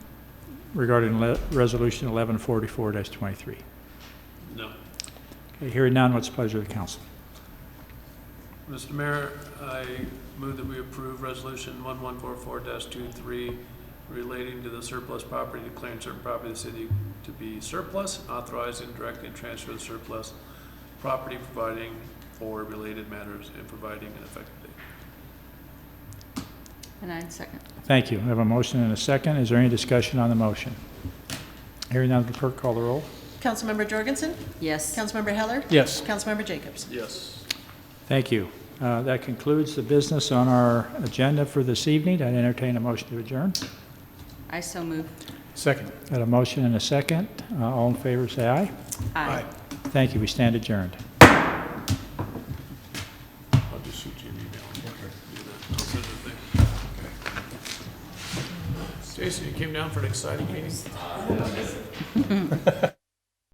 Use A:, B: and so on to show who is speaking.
A: regarding le- Resolution 1144-23?
B: No.
A: Okay, Hearing none, what's the pleasure of the council?
B: Mr. Mayor, I move that we approve Resolution 1144-23 relating to the surplus property, declaring certain property of the city to be surplus, and authorizing and directing transfer of surplus property, providing for related matters, and providing an effective date.
C: And I second.
A: Thank you. I have a motion and a second. Is there any discussion on the motion? Hearing none, will the clerk call the roll?
D: Councilmember Jorgensen?
C: Yes.
D: Councilmember Heller?
A: Yes.
D: Councilmember Jacobs?
B: Yes.
A: Thank you. Uh, That concludes the business on our agenda for this evening. I entertain a motion to adjourn.
C: I so move.
E: Second.
A: Got a motion and a second. Uh, All in favor, say aye.
C: Aye.
A: Thank you. We stand adjourned.
B: I'll just shoot you an email. Do that. I'll send it there. Jason, you came down for an exciting meeting?